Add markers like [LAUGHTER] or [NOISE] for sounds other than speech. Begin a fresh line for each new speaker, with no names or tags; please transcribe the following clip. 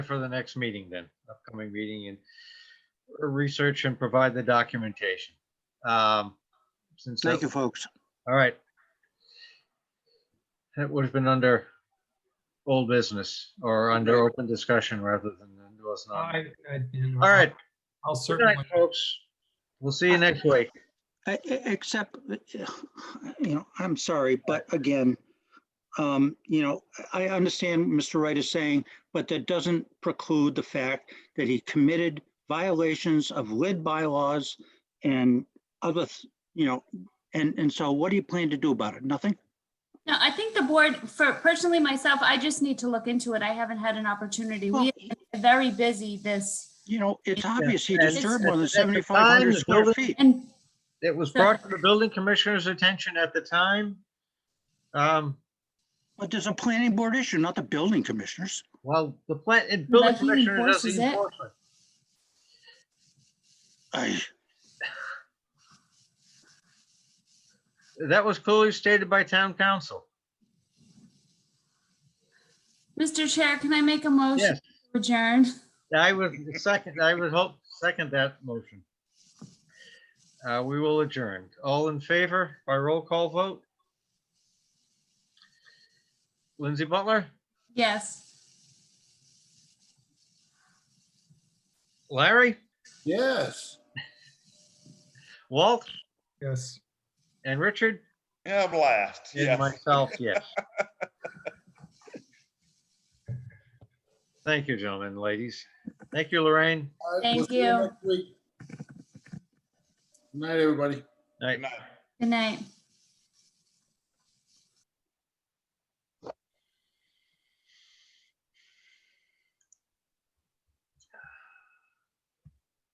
for the next meeting then, upcoming meeting and research and provide the documentation. Um, Since,
Thank you,
that-
folks.
all right. That would have been under old business or under open discussion rather than it was not.
I, I, you know,
All right,
I'll
good night,
certainly,
folks. We'll see you next week.
E- e- Except, [SIGHS] uh, you know, I'm sorry, but again, um, you know, I I understand Mr. Wright is saying, but that doesn't preclude the fact that he committed violations of lid bylaws and other, th- you know, and, and so what do you plan to do about it? Nothing?
No, I think the board, for personally myself, I just need to look into it. I haven't had an opportunity.
Well,
We are very busy this
You know, it's
Yeah,
obvious he
and-
disturbed more
At the
than
time,
7,500
the
square
building-
feet.
and
It was brought to the building commissioner's attention at the time. Um,
But there's a planning board issue, not the building commissioners.
Well, the plant, and building
But he
commissioner does
enforces
the
it.
enforcement.
I,
That was clearly stated by town council.
Mr. Chair, can I make a motion
Yes,
to adjourn?
I would second, I would hope, second that motion. Uh, we will adjourn. All in favor by roll call vote? Lindsay Butler,
Yes.
Larry,
Yes.
Walt,
yes.
and Richard,
Yeah, blast.
and
Yes.
myself,
[LAUGHS]
yes. Thank you, gentlemen, ladies. Thank you, Lorraine.
Thank you.
Night, everybody.
Night.
Good night.
Good night.